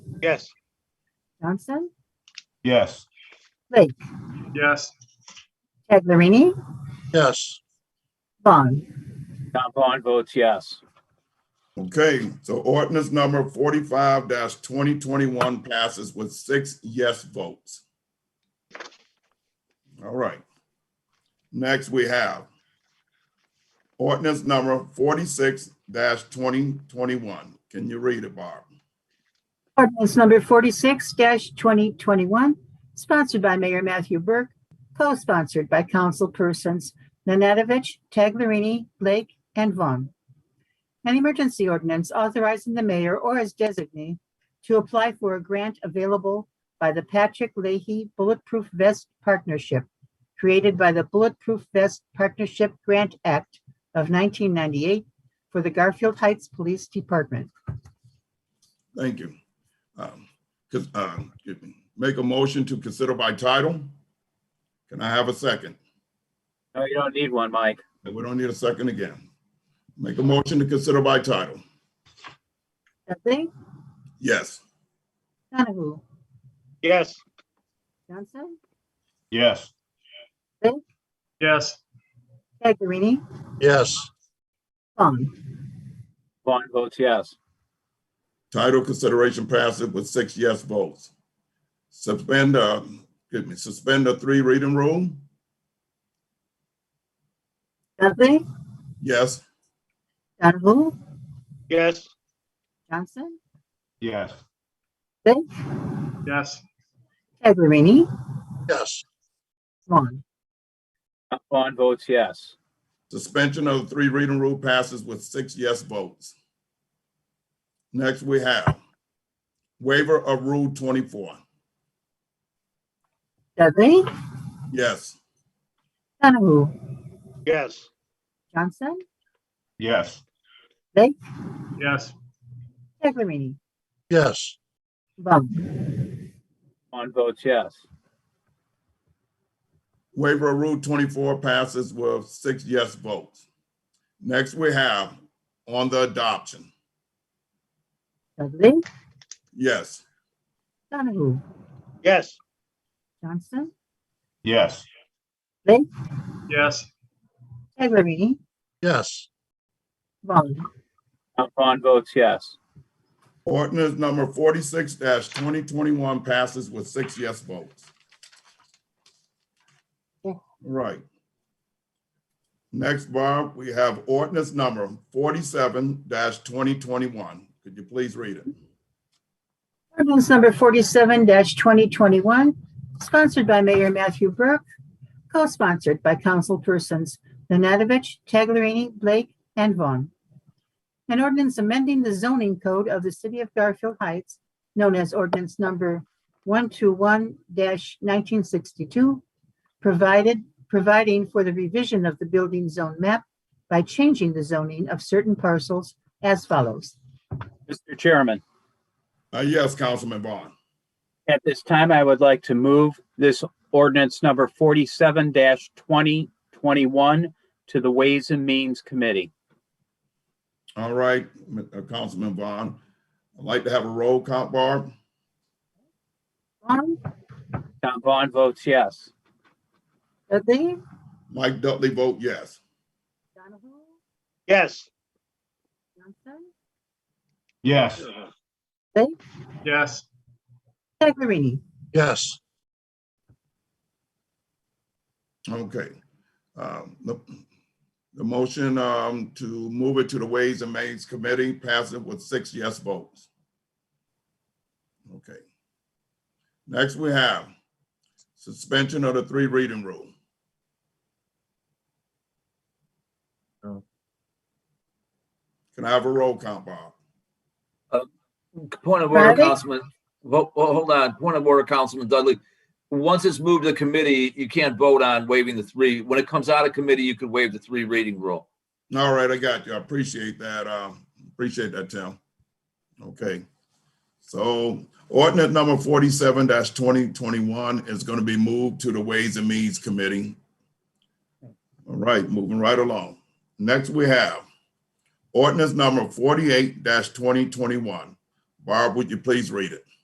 Yes. Johnson, Yes. Yes. Taglerini, Yes. Vaughn. Tom Vaughn votes yes. Okay, so ordinance number forty-five twenty twenty-one passes with six yes votes. All right. Next, we have ordinance number forty-six twenty twenty-one. Can you read it, Barb? Ordinance number forty-six twenty twenty-one, sponsored by Mayor Matthew Burke, co-sponsored by councilpersons Nanadovich, Taglerini, Blake, and Vaughn. An emergency ordinance authorizing the mayor or his designee to apply for a grant available by the Patrick Leahy Bulletproof Vest Partnership, created by the Bulletproof Vest Partnership Grant Act of nineteen ninety-eight for the Garfield Heights Police Department. Thank you. Um, cause, um, excuse me. make a motion to consider by title? Can I have a second? No, you don't need one, Mike. We don't need a second again. Make a motion to consider by title. Dudley, Yes. Donahue, Yes. Johnson, Yes. Yes. Taglerini, Yes. Vaughn. Vaughn votes yes. Title consideration passes with six yes votes. Suspend, uh, excuse me, suspend the three reading rule? Dudley, Yes. Donahue, Yes. Johnson, Yes. Yes. Taglerini, Yes. Vaughn. Tom Vaughn votes yes. Suspension of the three reading rule passes with six yes votes. Next, we have waiver of Rule twenty-four. Dudley, Yes. Donahue, Yes. Johnson, Yes. Yes. Taglerini, Yes. Vaughn. Vaughn votes yes. Waiver of Rule 24 passes with six yes votes. Next, we have on the adoption. Dudley, Yes. Donahue, Yes. Johnson, Yes. Yes. Taglerini, Yes. Vaughn. Tom Vaughn votes yes. Ordinance number 46-2021 passes with six yes votes. All Right. Next, Barb, we have ordinance number 47-2021. Could you please read it? Ordinance number forty-seven twenty twenty-one, sponsored by Mayor Matthew Burke, co-sponsored by councilpersons Nanadovich, Taglerini, Blake, and Vaughn. An ordinance amending the zoning code of the city of Garfield Heights, known as ordinance number one-two-one nineteen sixty-two, provided, providing for the revision of the building zone map by changing the zoning of certain parcels as follows. Mr. Chairman, Uh, Yes, Councilman Vaughn. at this time, I would like to move this ordinance number forty-seven twenty twenty-one to the Ways and Means Committee. All right, M- uh, Councilman Vaughn. I'd like to have a roll call, Barb. Vaughn, Tom Vaughn votes yes. Dudley, Mike Dudley vote yes. Donahue, Yes. Johnson, Yes. Yes. Taglerini, Yes. Okay. Um, The the motion um, to move it to the Ways and Means Committee passes with six yes votes. Okay. Next, we have suspension of the three reading rule. Can I have a roll call, Bob? Point of order, Bradley? Councilman, Vo- oh, hold on, point of order, Councilman Dudley. Once it's moved to the committee, you can't vote on waiving the three. When it comes out of committee, you could waive the three reading rule. All right, I got you. I appreciate that. Um, appreciate that, Tim. Okay. So ordinance number forty-seven twenty twenty-one is gonna be moved to the Ways and Means Committee. All right, moving right along. Next we have ordinance number forty-eight twenty twenty-one. Barb, would you please read it?